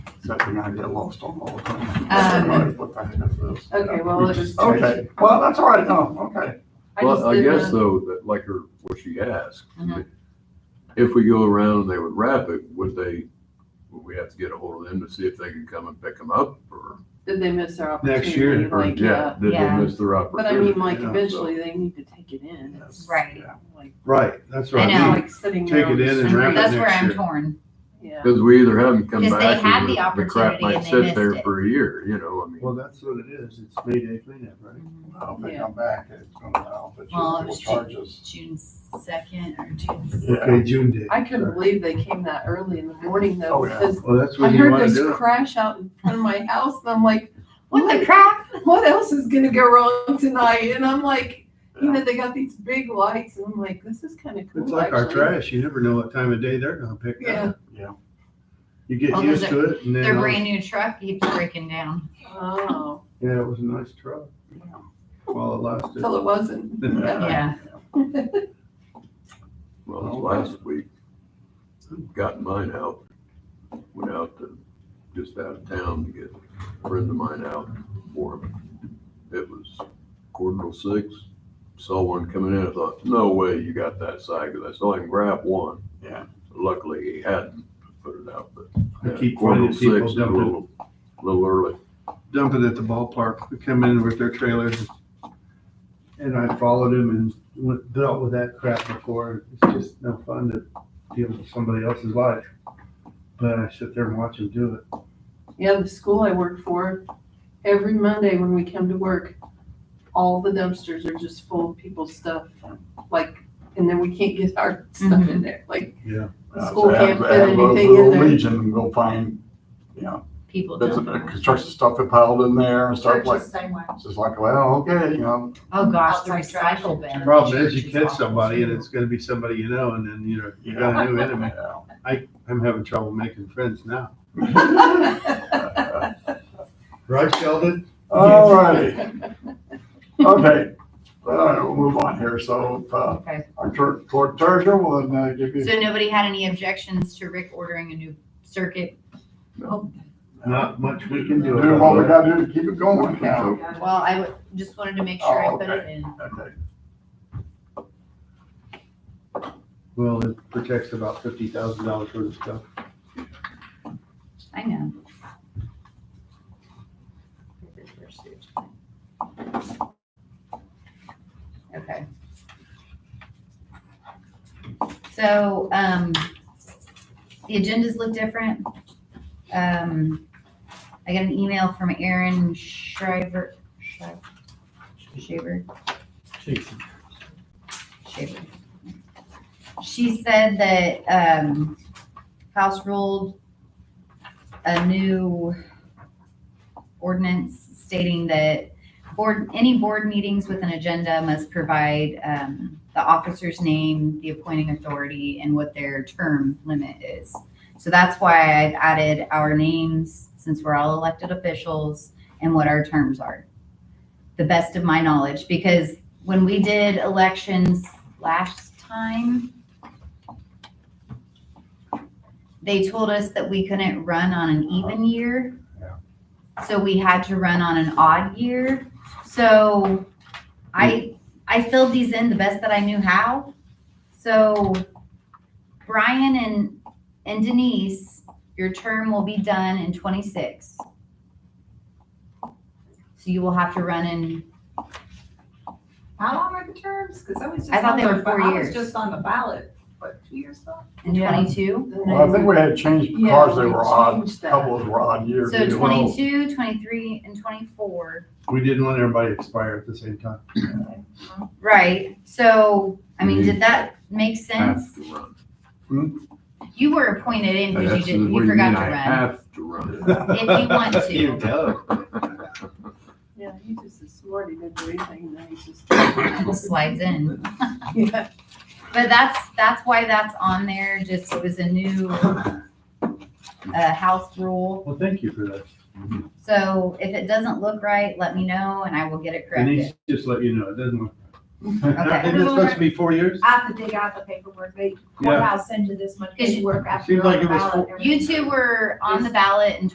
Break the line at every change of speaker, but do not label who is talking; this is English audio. that thing I get lost on all the time.
Um,
Right, What the heck is this?
Okay, well, it was.
Okay, well, that's all right, no, okay.
I just
Well, I
did
guess
the-
though, that like her, what she asked,
Uh-huh.
Mhm.
if we go around and they would wrap it, would they, would we have to get a hold of them to see if they can come and pick them up or?
Did they miss their opportunity?
Next year,
or,
Like, yeah,
Did they
yeah.
miss their
but I mean,
opportunity?
like,
Yeah, so-
eventually they need to take it in. It's
Right.
Yeah.
Like,
Right, that's
I
right.
know.
like sitting there.
Take
on
it in
the
and wrap it
street.
That's where
next
I'm
year.
torn.
Yeah.
Because we either have them come
Because they
back
had
and
the
the- the crap
opportunity
might
and they
sit
missed
there
it.
for a year, you know, I
Well,
mean.
that's what it is. It's Mayday cleanup, right?
I don't think I'm back, it's gonna, I'll bet
Well, it
you will
was
charge us.
June second or June.
Yeah,
Okay, June day.
I couldn't believe they came that early in the morning though,
Oh, yeah.
because
Well, that's
I
when you
heard
want to
this
do it.
crash out in front of my house and I'm like, what the
crap?
what else is gonna go wrong tonight? And I'm like, you know, they got these big lights, and I'm like, this is kind of cool.
It's like our
actually.
trash. You never know what time of day they're gonna pick
Yeah.
up.
Yeah.
You get
Well,
used
there's
to it and then,
Their
all-
brand new truck keeps breaking down.
Oh,
yeah, it was a nice truck while it lasted.
till it wasn't.
Yeah.
Yeah.
Well, this last week, got mine out, went out to, just out of town to get a friend of mine out for him. It was quarter till six, saw one coming in, I thought, no way you got that side, because I saw him grab one.
Yeah.
Luckily, he hadn't put it out, but.
I keep
Quarter
oh
finding
till
people
six, a
dumping-
little, little early.
dump it at the ballpark. They come in with their trailers. And I followed him and went- dealt with that crap before. It's just no fun to deal with somebody else's life. But I sit there and watch him do it.
Yeah, the school I work for, every Monday when we come to work, all the dumpsters are just full of people's stuff, like, and then we can't get our stuff in there, like,
Uh,
School
so
can't
have-
fit
have those
anything in
little
there.
Legion and go find, you know,
People
bits
don't.
of,
know.
construction stuff they piled in there and stuff like,
Churches, same way.
it's just like, well, okay, you know,
Oh, gosh, the
Outside trash.
recycle bin.
The
at
problem
the
is you
church
catch
awful,
somebody and
too.
it's gonna be somebody you know and then, you know, you got a new enemy.
yeah.
I'm having trouble making friends now.
All
Right, Sheldon?
righty. Okay, well, we'll move on here. So, uh,
Okay.
our clerk clerk treasurer will then uh, give you.
So nobody had any objections to Rick ordering a new circuit?
Not much we can
Do
do.
what we
about
gotta do to keep it going now.
Well, I would, just wanted to make sure I
Oh,
put it in.
Okay.
it. Well, it protects about fifty thousand dollars worth of stuff.
I know. Okay. So, um, the agendas look different. Um, I got an email from Aaron Shriver, Shriver, Shaver. Shaver. She said that, um, House ruled a new ordinance stating that board, any board meetings with an agenda must provide um, the officer's name, the appointing authority, and what their term limit is. So that's why I've added our names, since we're all elected officials, and what our terms are. The best of my knowledge, because when we did elections last time, they told us that we couldn't run on an even year.
Yeah.
So we had to run on an odd year. So I, I filled these in the best that I knew how. So Brian and, and Denise, your term will be done in twenty-six. So you will have to run in,
How long are the terms? Because I was just.
I thought
on
they
the
were four
ba- I
years.
was just on the ballot, what, two years ago?
in
Yeah.
twenty-two.
Well, I think we had changed
Yeah,
because they
we
were odd,
changed that.
couples were odd years.
So
you know.
twenty-two, twenty-three, and twenty-four.
We didn't want everybody to expire at the same time.
Right, so, I mean, did that make sense?
Have to run.
You were appointed in because you
That's
didn't,
what
you forgot
mean,
to
I
run.
Have to run.
If you want to.
You go.
Yeah, he just is smart, he didn't do anything, then he's just.
Slides in.
Yeah.
But that's, that's why that's on there, just it was a new, uh, house rule.
Well, thank you for that.
So if it doesn't look right, let me know and I will get it
Denise
corrected.
just let you know, it doesn't work.
Okay.
Isn't it supposed to be four years?
I have to dig out the paperwork. They,
Yeah.
courthouse sends you this much
Is-
paperwork after
Seems
you're on
like
the
it was
ballot.
four-
and everything.
You two were on the ballot in